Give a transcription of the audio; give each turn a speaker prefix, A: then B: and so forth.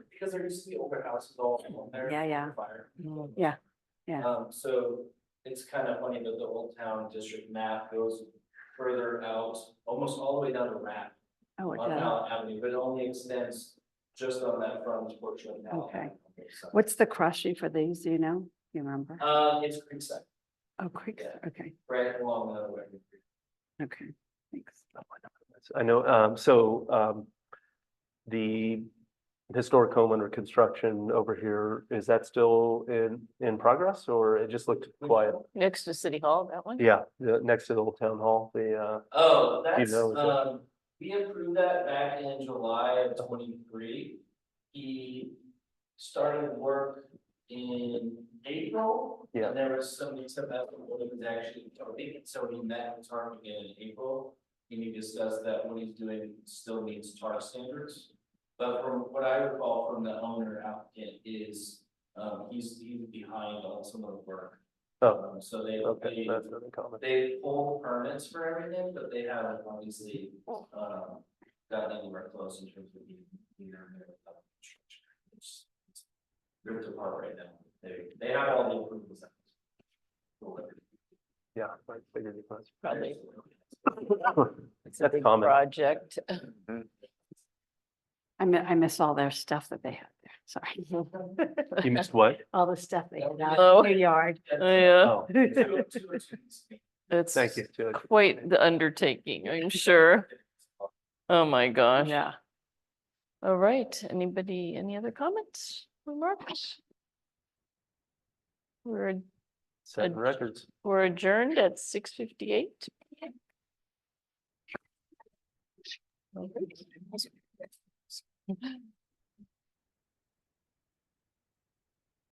A: because there used to be older houses all along there.
B: Yeah, yeah.
A: fire.
B: Yeah, yeah.
A: Um, so it's kind of funny that the old town district map goes further out, almost all the way down to Rapp
B: Oh, it
A: on
B: does.
A: Allen Avenue, but uh, it only extends just on that front portion of Allen.
B: Okay.
A: Avenue, so.
B: What's the crushy for these, do you know? You remember?
A: Uh, it's Creekside,
B: Oh, creek,
A: yeah.
B: okay,
A: right along the way.
B: okay, thanks.
C: Oh, I know, um, so, um, the historic home under construction over here, is that still in, in progress or it just looked quiet?
D: Next to City Hall, that one?
C: Yeah, the, next to the old town hall, the, uh,
A: Oh, that's,
C: know, is that-
A: um, we approved that back in July of twenty-three. He started work in April.
C: Yeah.
A: And there was somebody said that one was actually, I think it's somebody met with TARP again in April. And he discussed that what he's doing still meets TARP standards. But from what I recall from the owner applicant is, um, he's, he's behind on some of the work.
C: oh,
A: Um, So they,
C: okay,
A: they
C: that's another comment.
A: they pull permits for everything, but they haven't obviously,
D: Oh.
A: um, gotten anywhere close in terms of being either. in their, uh, construction. It's- it's Ripped apart right now, they, they have all the approvals. out.
C: Yeah. I figured it was.
D: Probably. It's a
C: That's
D: big
C: common.
D: project.
A: Oh,
B: I mi- I miss all their stuff that they had there, sorry.
A: Mm-hmm.
C: You missed what?
B: All the stuff they had
D: Oh.
B: out in their yard.
D: Yeah,
C: Oh,
A: Two- two or two weeks.
D: Oh, it's
C: thank you. Judge.
D: quite the undertaking, I'm sure. Oh, my gosh.
B: Yeah.
D: All right, anybody, any other comments, remarks? We're,
C: Setting records.
D: we're adjourned at six fifty-eight.